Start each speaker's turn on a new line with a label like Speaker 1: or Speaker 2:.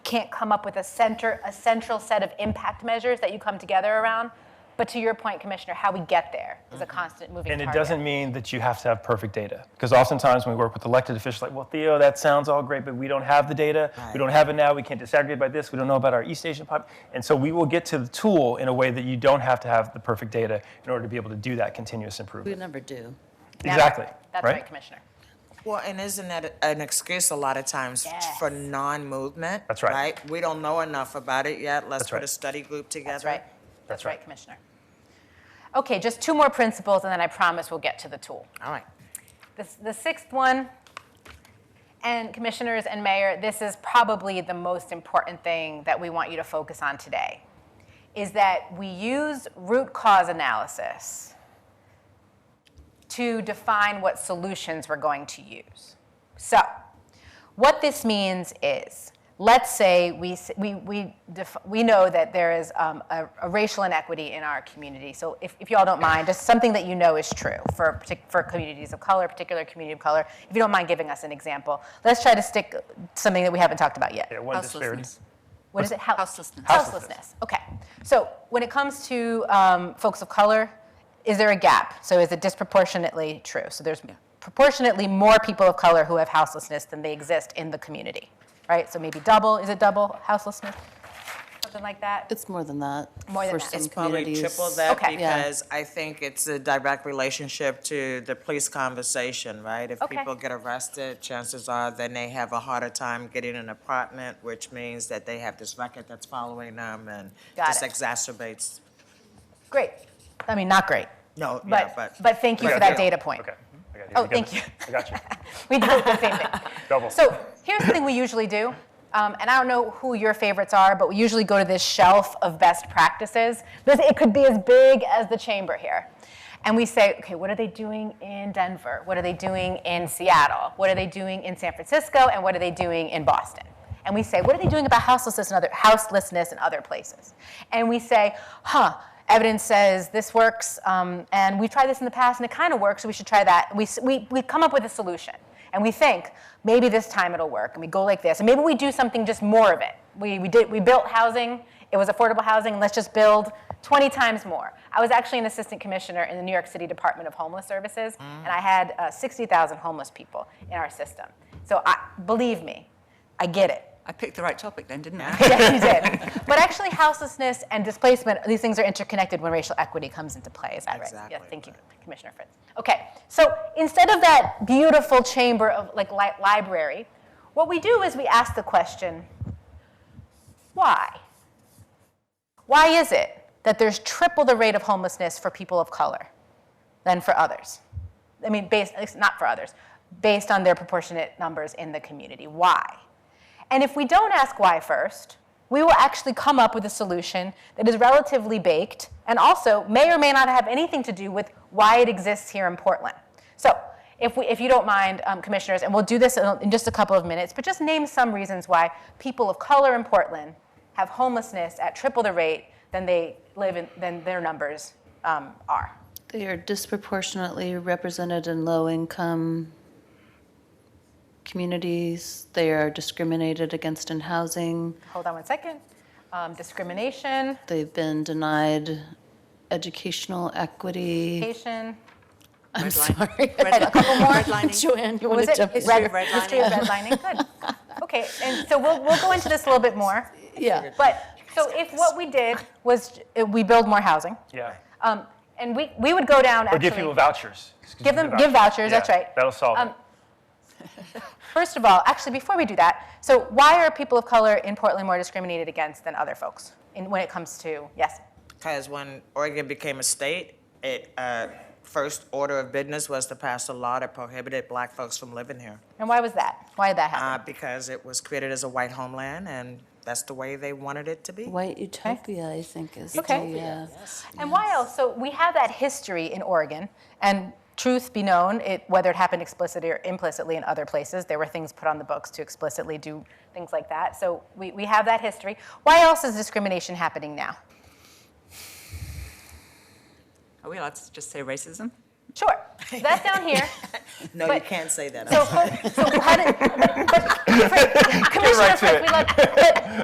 Speaker 1: can't come up with a center, a central set of impact measures that you come together around. But to your point, Commissioner, how we get there is a constant moving
Speaker 2: And it
Speaker 1: target.
Speaker 2: doesn't mean that you have to have perfect data. Because oftentimes when we work with elected officials, like, well, Theo, that sounds all great, but we don't have the data. We don't have it now. We can't disaggregate by this. We don't know about our East Asian pop. And so we will get to the tool in a way that you don't have to have the perfect data in order to be able to do that continuous
Speaker 3: We
Speaker 2: improvement.
Speaker 3: never do.
Speaker 1: Never.
Speaker 2: Exactly.
Speaker 1: That's right, Commissioner.
Speaker 4: Well, and isn't that an excuse a lot of times
Speaker 1: Yes.
Speaker 4: for non-movement?
Speaker 2: That's right.
Speaker 4: Right? We don't know enough about it yet. Let's
Speaker 2: That's
Speaker 4: put
Speaker 2: right.
Speaker 4: a study group together.
Speaker 1: That's right. That's
Speaker 2: That's
Speaker 1: right,
Speaker 2: right.
Speaker 1: Commissioner. Okay, just two more principles, and then I promise we'll get to the tool.
Speaker 4: All right.
Speaker 1: The, the sixth one, and commissioners and mayor, this is probably the most important thing that we want you to focus on today, is that we use root cause analysis to define what solutions we're going to use. So, what this means is, let's say we, s- we, we, def- we know that there is um, a, a racial inequity in our community. So if, if y'all don't mind, just something that you know is true for, a partic- for communities of color, particular community of color. If you don't mind giving us an example, let's try to stick something that we haven't talked about yet.
Speaker 2: Yeah, one disparity.
Speaker 3: Houselessness.
Speaker 1: What is it? Hou-
Speaker 3: Houselessness.
Speaker 1: Houselessness. Okay. So when it comes to um, folks of color, is there a gap? So is it disproportionately true? So there's proportionately more people of color who have houselessness than they exist in the community, right? So maybe double. Is it double houselessness? Something like that.
Speaker 3: It's more than that.
Speaker 1: More than
Speaker 3: for
Speaker 1: that.
Speaker 3: some
Speaker 1: It's
Speaker 4: Probably
Speaker 3: communities.
Speaker 4: triple that
Speaker 1: Okay.
Speaker 3: Yeah.
Speaker 4: because I think it's a direct relationship to the police conversation, right? If
Speaker 1: Okay.
Speaker 4: people get arrested, chances are then they have a harder time getting an apartment, which means that they have this record that's following them and
Speaker 1: Got
Speaker 4: just
Speaker 1: it.
Speaker 4: exacerbates.
Speaker 1: Great. I mean, not great.
Speaker 4: No, yeah,
Speaker 1: But,
Speaker 4: but
Speaker 1: but thank you for that data point.
Speaker 2: Okay. I got you.
Speaker 1: Oh,
Speaker 2: We got
Speaker 1: thank
Speaker 2: this.
Speaker 1: you.
Speaker 2: I got you.
Speaker 1: We do the same thing.
Speaker 2: Double.
Speaker 1: So here's the thing we usually do, um, and I don't know who your favorites are, but we usually go to this shelf of best practices. This, it could be as big as the chamber here. And we say, okay, what are they doing in Denver? What are they doing in Seattle? What are they doing in San Francisco? And what are they doing in Boston? And we say, what are they doing about houselessness and other houselessness in other places? And we say, huh, evidence says this works, um, and we've tried this in the past and it kind of works, so we should try that. And we, s- we, we come up with a solution and we think maybe this time it'll work, and we go like this, and maybe we do something just more of it. We, we, did, we built housing, it was affordable housing, let's just build 20 times more. I was actually an assistant commissioner in the New York City Department of Homeless Services, and I had uh, 60,000 homeless people in our system. So I, believe me, I get it
Speaker 5: I picked the right topic then, didn't I?
Speaker 1: yes, you did. But actually, houselessness and displacement, these things are interconnected when racial equity comes into play. Is that right?
Speaker 4: Exactly
Speaker 1: Yes, thank you,
Speaker 4: right.
Speaker 1: Commissioner Fritz. Okay, so instead of that beautiful chamber of like li- library, what we do is we ask the question why? Why is it that there's triple the rate of homelessness for people of color than for others? I mean, based, at least not for others, based on their proportionate numbers in the community. Why? And if we don't ask why first, we will actually come up with a solution that is relatively baked and also may or may not have anything to do with why it exists here in Portland. So, if, we, if you don't mind, um, commissioners, and we'll do this in, in just a couple of minutes, but just name some reasons why people of color in Portland have homelessness at triple the rate than they live in, than their numbers um, are.
Speaker 3: They are disproportionately represented in low-income communities. They are discriminated against in housing.
Speaker 1: Hold on one second. Um, discrimination,
Speaker 3: They've been denied educational equity.
Speaker 1: education.
Speaker 3: I'm
Speaker 5: Redlining.
Speaker 3: sorry.
Speaker 1: A couple more.
Speaker 3: Joanne, you
Speaker 1: What was
Speaker 3: want to
Speaker 1: it?
Speaker 3: jump in?
Speaker 1: History of
Speaker 5: Redlining.
Speaker 1: History of redlining. Good. Okay, and so we'll, we'll go into this a little bit more.
Speaker 3: Yeah.
Speaker 1: But so if what we did was uh, we build more housing,
Speaker 2: Yeah.
Speaker 1: um, and we, we would go down
Speaker 2: Or
Speaker 1: actually.
Speaker 2: give people vouchers. Excuse
Speaker 1: Give
Speaker 2: me,
Speaker 1: them- give vouchers, that's
Speaker 2: Yeah,
Speaker 1: right.
Speaker 2: That'll solve it.
Speaker 1: Um, First of all, actually, before we do that, so why are people of color in Portland more discriminated against than other folks in, when it comes to yes?
Speaker 4: Because when Oregon became a state, it, uh, first order of business was to pass a law that prohibited black folks from living here.
Speaker 1: And why was that? Why did that
Speaker 4: Uh,
Speaker 1: happen?
Speaker 4: because it was created as a white homeland and that's the way they wanted it to be.
Speaker 3: White utopia, I think, is
Speaker 1: Okay.
Speaker 3: the, uh,
Speaker 1: and why else? So we have that history in Oregon, and truth be known, it, whether it happened explicitly or implicitly in other places, there were things put on the books to explicitly do things like that. So we, we have that history. Why else is discrimination happening now?
Speaker 5: Are we allowed to just say racism?
Speaker 1: Sure, that's down here.
Speaker 4: No, you
Speaker 1: but-
Speaker 4: can't say that.
Speaker 1: So, so how did, but, but, Fritz, Commissioner
Speaker 2: right to
Speaker 1: Fritz,
Speaker 2: it.
Speaker 1: we love, but